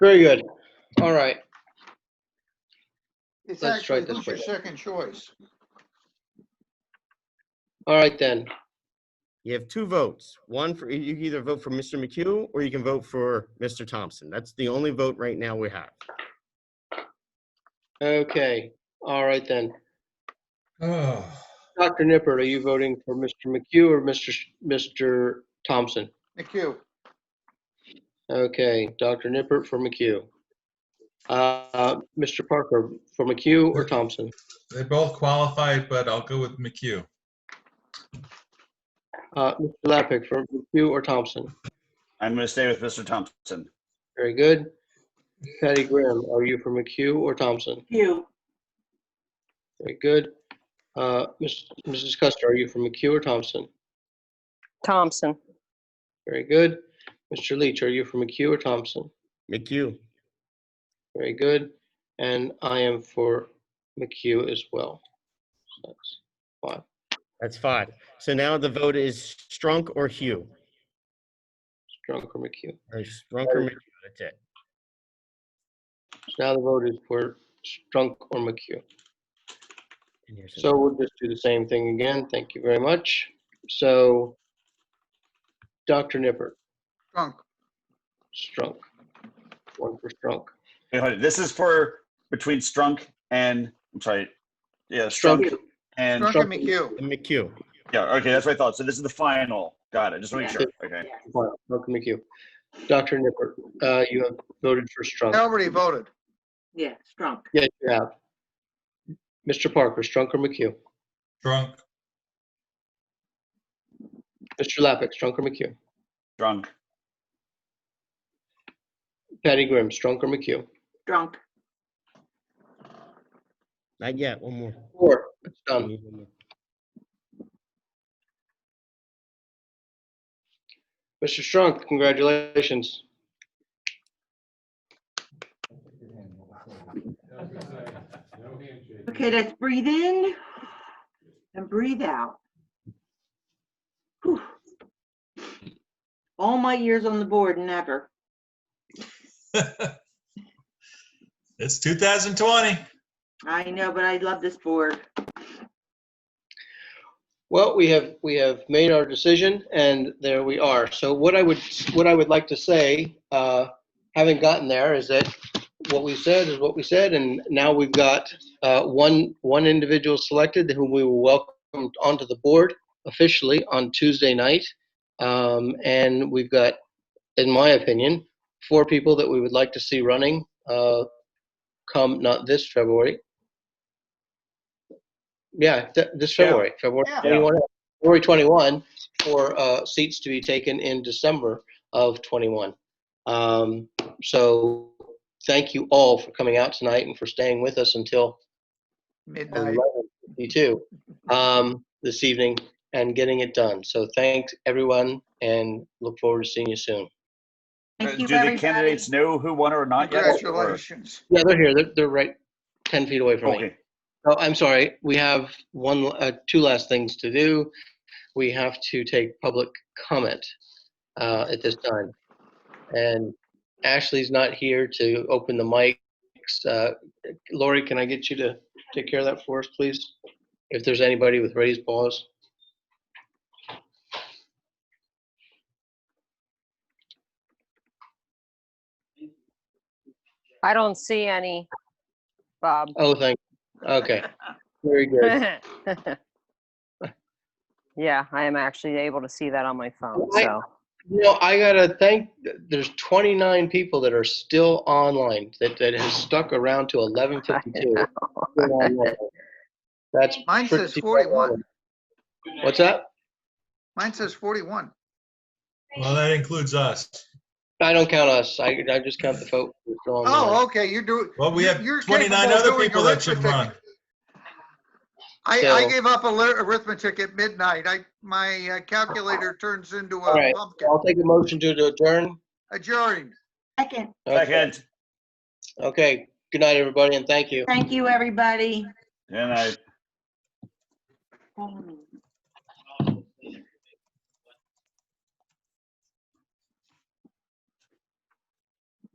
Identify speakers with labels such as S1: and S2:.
S1: Very good. All right.
S2: It's
S1: Let's try
S2: actually,
S1: it this
S2: who's your
S1: way.
S2: second choice?
S1: All right then.
S3: You have two votes. One for, you can either vote for Mr. McHugh or you can vote for Mr. Thompson. That's the only vote right now we have.
S1: Okay. All right then.
S4: Oh,
S1: Dr. Nippert, are you voting for Mr. McHugh or Mr. Sh- Mr. Thompson?
S2: McHugh,
S1: Okay, Dr. Nippert for McHugh. Uh, Mr. Parker for McHugh or Thompson?
S4: they both qualified, but I'll go with McHugh.
S1: Uh, Mr. Lappick for McHugh or Thompson?
S5: I'm going to stay with Mr. Thompson.
S1: Very good. Patty Graham, are you for McHugh or Thompson?
S6: Hugh,
S1: Very good. Uh, Ms- Mrs. Custer, are you for McHugh or Thompson?
S7: Thompson,
S1: Very good. Mr. Leach, are you for McHugh or Thompson?
S3: McHugh,
S1: Very good. And I am for McHugh as well. So that's five.
S3: that's five. So now the vote is Strunk or Hugh.
S1: Strunk or McHugh.
S3: Or Strunk or McHugh, that's it.
S1: So now the vote is for Strunk or McHugh.
S3: And here's a-
S1: So we'll just do the same thing again. Thank you very much. So Dr. Nippert,
S2: Strunk,
S1: Strunk. One for Strunk.
S5: Wait, hold it. This is for between Strunk and, I'm sorry, yeah, Strunk and,
S2: Strunk and McHugh.
S3: and McHugh.
S5: yeah, okay, that's what I thought. So this is the final. Got it. Just want to make sure. Okay.
S1: Well, Welcome McHugh. Dr. Nippert, uh, you have voted for
S2: I
S1: Strunk.
S2: already voted.
S6: yeah, Strunk,
S1: Yes, you have. Mr. Parker, Strunk or McHugh?
S4: Drunk,
S1: Mr. Lappick, Strunk or McHugh?
S5: Drunk.
S1: Patty Grimm, Strunk or McHugh?
S6: Strunk,
S3: Not yet, one more.
S1: Four, it's
S3: We
S1: done.
S3: need one more.
S1: Mr. Strunk, congratulations.
S6: okay, let's breathe in and breathe out. Whew. All my years on the board, never.
S4: it's 2020.
S6: I know, but I love this board.
S1: Well, we have, we have made our decision and there we are. So what I would, what I would like to say, uh, having gotten there is that what we said is what we said and now we've got, uh, one, one individual selected whom we will welcome onto the board officially on Tuesday night. Um, and we've got, in my opinion, four people that we would like to see running, uh, come not this February. Yeah, th- this
S5: Yeah.
S1: February, February
S2: Yeah.
S1: 21, February 21, for uh, seats to be taken in December of 21. Um, So thank you all for coming out tonight and for staying with us until
S2: Midnight.
S1: 11:52 um, this evening and getting it done. So thanks, everyone, and look forward to seeing you soon.
S5: Uh,
S6: Thank
S5: Do
S6: you,
S5: the
S6: everybody.
S5: candidates know who won or not yet? Or-
S2: Congratulations.
S1: Yeah, they're here. They're, they're right 10 feet away from me.
S5: Okay.
S1: Oh, I'm sorry. We have one, uh, two last things to do. We have to take public comment uh, at this time. And Ashley's not here to open the mics. Uh, Lori, can I get you to take care of that for us, please? If there's anybody with raised paws.
S7: I don't see any, Bob.
S1: Oh, thank, okay. Very good.
S7: Yeah, I am actually able to see that on my phone,
S1: I-
S7: so.
S1: You know, I gotta thank, there's 29 people that are still online, that, that have stuck around to 11:52. Still online. That's
S2: Mine says
S1: pretty-
S2: 41.
S1: What's that?
S2: Mine says 41.
S4: Well, that includes us.
S1: I don't count us. I, I just count the folk. who are still on the
S2: Oh,
S1: line.
S2: okay, you do.
S4: Well, we
S2: you-
S4: have
S2: you're
S4: 29
S2: capable of
S4: other
S2: doing
S4: people that should
S2: arithmetic.
S4: run.
S2: I, I
S1: So-
S2: gave up alert- arithmetic at midnight. I, my uh, calculator turns into
S1: All
S2: a
S1: right.
S2: pumpkin.
S1: I'll take a motion to to adjourn.
S2: Adjourned.
S6: Second,
S1: Okay.
S5: Second.
S1: Okay. Good night, everybody, and thank you.
S6: thank you, everybody.
S5: And I.
S6: Thank you.